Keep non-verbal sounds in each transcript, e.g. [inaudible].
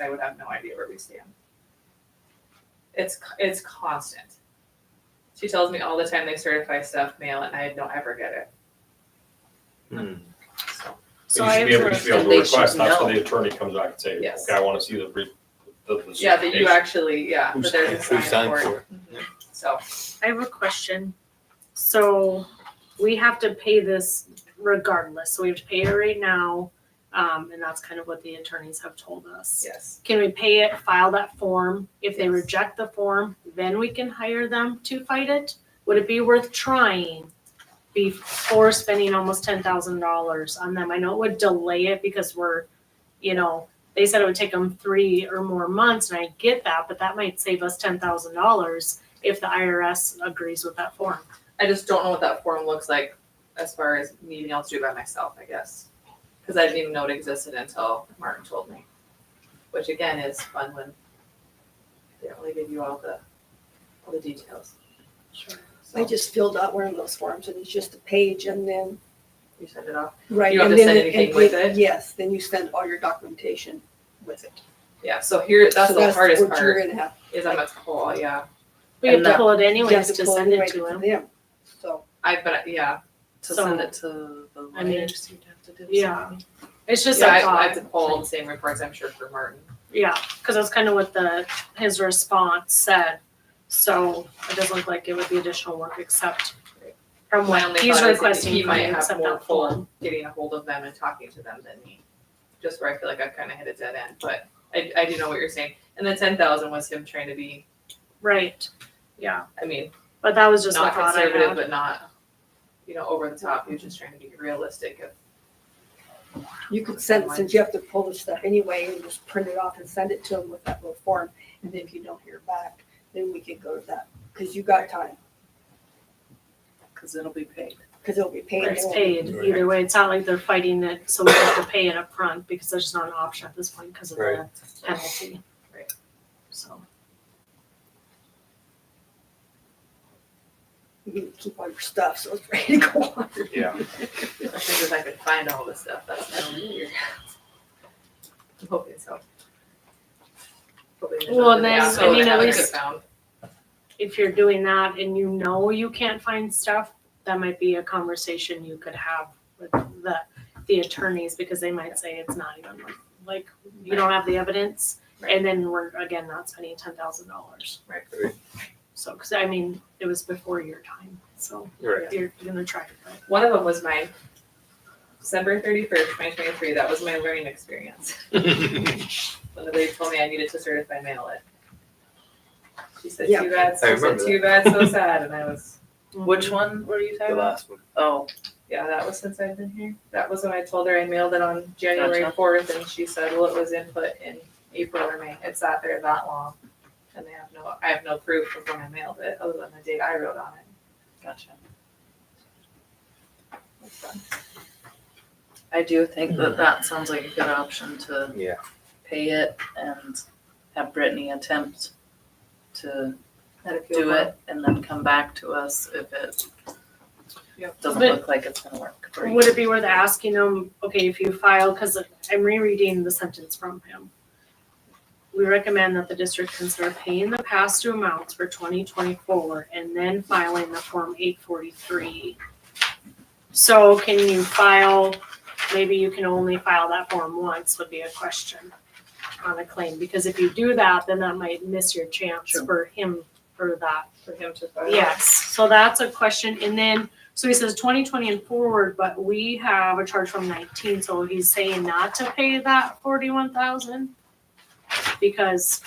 I would have no idea where we stand. It's c- it's constant. She tells me all the time they certify stuff, mail, it, and I don't ever get it. Hmm. So So You I should be able, you observed should be that able to they should request, that's know. when the attorney comes out and say, Yes. okay, I wanna see the, re- the, the. yeah, that you certification." actually yeah, Who's- but there's a sign who signed for it. Mm-hmm. for it? So I have a question. So we have to pay this regardless. So we have to pay it right now. Um, and that's kind of what the attorneys have told us. yes, Can we pay it, file that form? If they Yes. reject the form, then we can hire them to fight it? Would it be worth trying before spending almost ten thousand dollars on them? I know it would delay it because we're, you know, they said it would take them three or more months, and I get that, but that might save us ten thousand dollars if the IRS agrees with that form. I just don't know what that form looks like as far as me being able to do it by myself. I guess because I didn't even know it existed until Martin told me, which again is fun when they don't really give you all the all the details. Sure. I So just filled out one of those forms and it's just a page and then, you send it off. right. don't have and to then send it- anything and with then- it? Yes, then you send all your documentation with it. Yeah, so here, that's So the hardest what You're part, gonna have. is I'm a call, yeah. We have And to that- pull it you anyways have to pull send it right to them. them. So, I, but, yeah, to So, send it to the I mean, lawyers, you'd have to do something. yeah. It's just Yeah, a I, thought. I have to pull all the same reports, I'm sure, for Martin. Yeah, because that's kind of what the, his response said. So it doesn't look like it would be additional work except from My what only he's thought is that requesting He from might you, have except more that pull form. getting a hold of them and talking to them than me, just where I feel like I've kind of hit a dead end, but I, I do know what you're saying. And the ten thousand was him trying to be, Right, yeah, I mean, but that was just a not thought I conservative, had. but not, you know, over the top, he was just trying to be realistic of, you could send, since you have to pull the stuff anyway, you just print it off and send it to them with that little form. And then if you don't hear back, then we could go to that, because you got time, Cause it'll be paid. because it'll be paid. It's and- paid either way. It's not like they're fighting it, so we have to pay it up front because there's just not an option at this point because of the penalty. Right. So, You can keep all your stuff, so it's [laughs] ready to go on. Yeah, I think if I could find all this stuff, that's kind of weird. I'm hoping so. Hoping there's Well, nothing then, else I mean, that at I could least- found. if you're doing that and you know you can't find stuff, that might be a conversation you could have with the, the attorneys, because they might say it's not even like, like, you don't have the evidence. And then we're, again, not spending ten thousand dollars. Right. Right. So, cause I mean, it was before your time, so Right. you're gonna try it, but One of them was mine. December thirty-first, twenty twenty-three, that was my learning experience. [laughs] When they told me I needed to certify mail it. She said, Yeah. too bad, I so said, remember too bad, [laughs] so sad, and I was, Mm-hmm. Which one were you The talking about? last one. Oh, yeah, that was since I've been here. That was when I told her I mailed it on January Gotcha. fourth, and she said, well, it was input in April or May, it sat there that long. And they have no, I have no proof of when I mailed it, other than the date I wrote on it. gotcha. I do think that that sounds like a good option to Mm-hmm. Yeah. pay it and have Brittany attempt to Had a field do work. it and then come back to us if it Yep. doesn't But- look like it's gonna work for you. Would it be worth asking them, okay, if you file, because I'm rereading the sentence from him. We recommend that the district consider paying the past due amounts for twenty twenty-four and then filing the form eight forty-three. So can you file, maybe you can only file that form once would be a question on a claim, because if you do that, then that might miss your chance Sure. for him, for that for him to file. Yes, so that's a question, and then, so he says twenty twenty and forward, but we have a charge from nineteen, so he's saying not to pay that forty-one thousand? Because,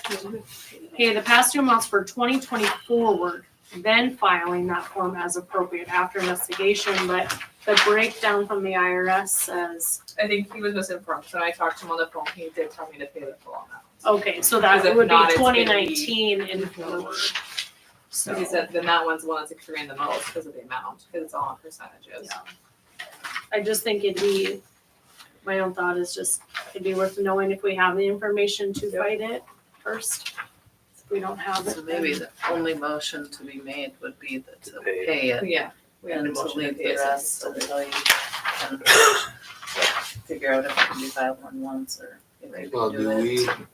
pay the past two months for twenty twenty forward, then filing that form as appropriate after investigation, but the breakdown from the IRS says, I think he was misinformed. So when I talked to him on the phone. He did tell me to pay the full amount. okay, so Because if that would not, it's be gonna be- twenty nineteen and forward. So he said then that one's the one that's accruing the most because of the amount, because it's all on percentages. Yeah. I just think it'd be, my own thought is just, it'd be worth knowing if we have the information to Yep. fight it first. If we don't have it, So maybe then, the only motion to be made would be that to Pay. pay it Yeah. We had a and to motion to leave pay the it. rest until you [coughs] can figure out if it can be filed on once or if you Well, can do do it. we,